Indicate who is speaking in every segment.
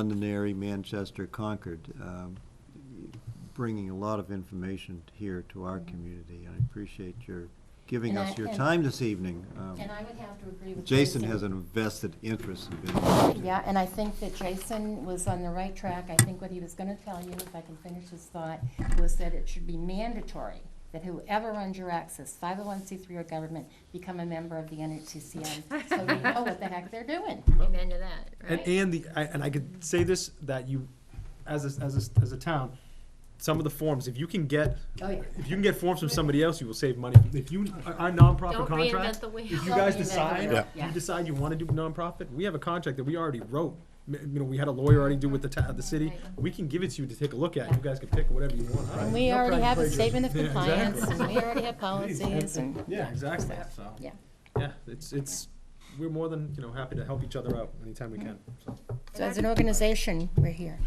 Speaker 1: Londonderry, Manchester, Concord, um, bringing a lot of information here to our community. I appreciate your giving
Speaker 2: Mm. And
Speaker 1: us
Speaker 2: I-
Speaker 1: your
Speaker 2: and-
Speaker 1: time this evening. Um,
Speaker 2: And I would have to agree with
Speaker 1: Jason
Speaker 2: Jason.
Speaker 1: has an invested interest in being.
Speaker 2: Yeah, and I think that Jason was on the right track. I think what he was gonna tell you, if I can finish his thought, was that it should be mandatory that whoever runs your access, five oh one C three or government, become a member of the NHCCN, so we know what the heck they're doing.
Speaker 3: Amen to that,
Speaker 4: And,
Speaker 3: right?
Speaker 4: and the, I- and I could say this, that you, as a, as a, as a town, some of the forms, if you can get,
Speaker 2: Oh, yeah.
Speaker 4: if you can get forms from somebody else, you will save money. If you, our nonprofit
Speaker 3: Don't reinvent
Speaker 4: contract,
Speaker 3: the wheel.
Speaker 4: if you
Speaker 2: Don't
Speaker 4: guys
Speaker 2: reinvent the wheel.
Speaker 4: decide,
Speaker 2: Yeah.
Speaker 4: you decide you wanna do nonprofit, we have a contract that we already wrote. M- You know, we had a lawyer already do with the ta, the city, we can give it to you to take a look at, you guys can pick whatever you want.
Speaker 2: And we already have a statement of
Speaker 4: Yeah,
Speaker 2: compliance,
Speaker 4: exactly.
Speaker 2: and we already have policies, and,
Speaker 4: Yeah, exactly, so.
Speaker 2: yeah.
Speaker 4: Yeah, it's, it's, we're more than, you know, happy to help each other out anytime we
Speaker 2: Mm-hmm.
Speaker 4: can, so.
Speaker 2: So as an organization, we're here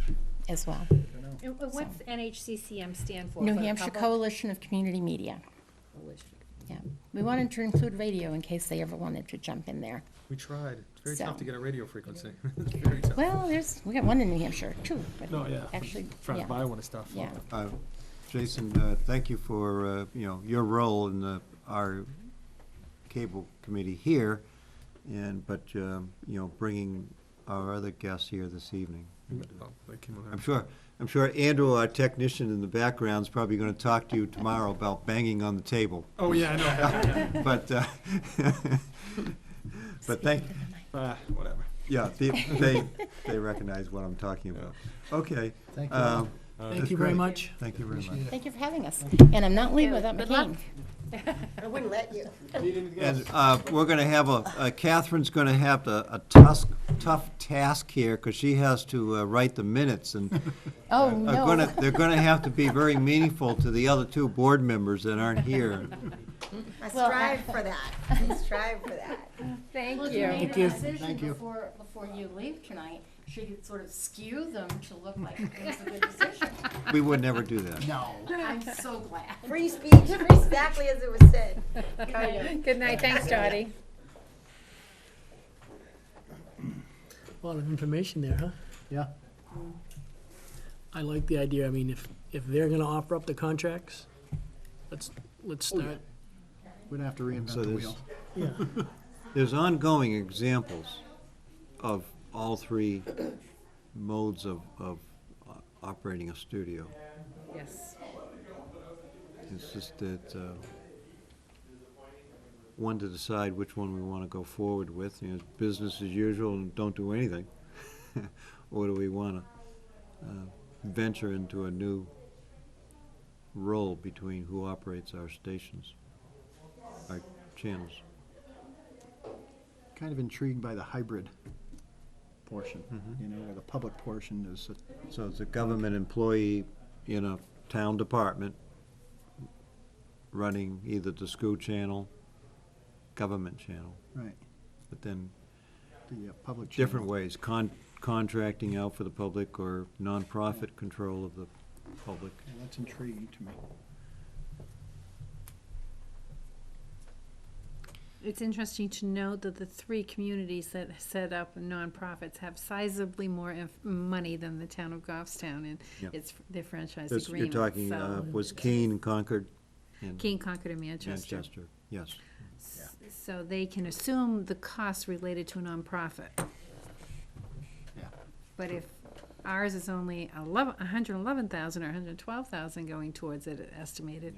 Speaker 2: as well.
Speaker 5: And wh- What's NHCCM stand for?
Speaker 2: New
Speaker 5: for the
Speaker 2: Hampshire
Speaker 5: public?
Speaker 2: Coalition of Community Media, yeah. We wanted to include radio in case they ever wanted to jump in there.
Speaker 4: We tried. It's very tough
Speaker 2: So-
Speaker 4: to get a radio frequency. It's very tough.
Speaker 2: Well, there's, we got one in New Hampshire, two. but
Speaker 4: No, yeah.
Speaker 2: Actually,
Speaker 4: Trying to
Speaker 2: Oh, yeah,
Speaker 4: buy one and stuff.
Speaker 2: yeah.
Speaker 1: Uh, Jason, uh, thank you for, uh, you know, your role in the, our cable committee here, and, but, um, you know, bringing our other guests here this evening.
Speaker 4: Oh, they came on
Speaker 1: I'm
Speaker 4: out.
Speaker 1: sure, I'm sure Andrew, our technician in the background, is probably gonna talk to you tomorrow about banging on the table,
Speaker 4: Oh, yeah, I know.
Speaker 1: but, uh, but thank,
Speaker 4: Ah, Whatever.
Speaker 1: yeah, they, they, they recognize what I'm talking about. Okay.
Speaker 6: Thank
Speaker 1: um,
Speaker 6: you. Uh,
Speaker 1: that's
Speaker 6: Thank you very
Speaker 1: great.
Speaker 6: much.
Speaker 1: Thank you very much.
Speaker 6: Appreciate it.
Speaker 2: Thank you for having us. And I'm not leaving without my
Speaker 3: Good luck.
Speaker 2: cane.
Speaker 3: I wouldn't let you.
Speaker 1: And uh, we're going to have a, uh, Catherine's going to have a a tusk, tough task here, because she has to uh, write the minutes, and
Speaker 2: Oh,
Speaker 1: are gonna,
Speaker 2: no.
Speaker 1: they're going to have to be very meaningful to the other two board members that aren't here.
Speaker 3: I
Speaker 2: Well,
Speaker 3: strive for that, I strive for that.
Speaker 5: Thank you.
Speaker 2: Thank you. Decision before, before you leave tonight, should you sort of skew them to look like it's a good decision?
Speaker 1: We would never do that.
Speaker 6: No.
Speaker 2: I'm so glad.
Speaker 3: Free speech, exactly as it was said.
Speaker 5: Good night, thanks, Dottie.
Speaker 6: A lot of information there, huh?
Speaker 1: Yeah.
Speaker 6: I like the idea. I mean, if, if they're gonna offer up the contracts, let's, let's start.
Speaker 7: We don't have to
Speaker 1: So
Speaker 7: reinvent the
Speaker 1: there's-
Speaker 7: wheel.
Speaker 6: Yeah.
Speaker 1: There's ongoing examples of all three modes of, of uh, operating a studio.
Speaker 5: Yes.
Speaker 1: It's just that, uh, one to decide which one we want to go forward with, you know, business as usual and don't do anything. Or do we want to venture into a new role between who operates our stations, our channels?
Speaker 7: Kind of intrigued by the hybrid portion,
Speaker 1: Mm-hmm.
Speaker 7: you know, where the public portion is, a-
Speaker 1: So it's a government employee in a town department running either the school channel, government channel,
Speaker 7: right,
Speaker 1: but then
Speaker 7: the uh, public. channel.
Speaker 1: different ways, con- contracting out for the public or nonprofit control of the public.
Speaker 7: Yeah, That's intriguing to me.
Speaker 5: It's interesting to note that the three communities that set up nonprofits have sizably more inf- money than the town of Goffstown and
Speaker 1: Yeah.
Speaker 5: it's their franchise
Speaker 1: This- You're
Speaker 5: agreement,
Speaker 1: talking, uh,
Speaker 5: so.
Speaker 1: was Keene, Concord, and
Speaker 5: King, Concord, and Manchester.
Speaker 1: Manchester, yes.
Speaker 5: S- So they can assume the costs related to a nonprofit.
Speaker 7: Yeah.
Speaker 5: But if ours is only eleven, a hundred and eleven thousand or a hundred and twelve thousand going towards it estimated,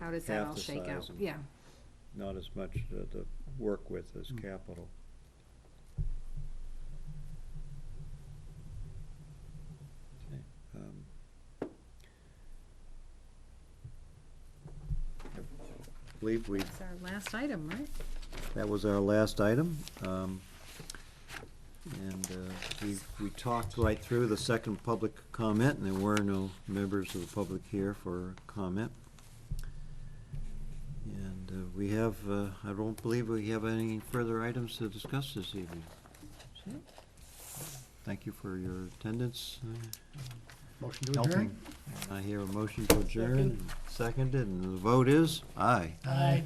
Speaker 5: how does that
Speaker 1: Half
Speaker 5: all
Speaker 1: the
Speaker 5: shake
Speaker 1: size
Speaker 5: out?
Speaker 1: and-
Speaker 5: Yeah,
Speaker 1: Not as much to to work with as capital. Okay, um, I Believe we
Speaker 5: it's our last item, right?
Speaker 1: That was our last item. um, And uh, we, we talked right through the second public comment, and there were no members of the public here for comment. And uh, we have, uh, I don't believe we have any further items to discuss this evening. So, Thank you for your attendance.
Speaker 7: Motion to adjourn?
Speaker 1: I hear a motion to adjourn, seconded, and the vote is aye.
Speaker 6: Aye.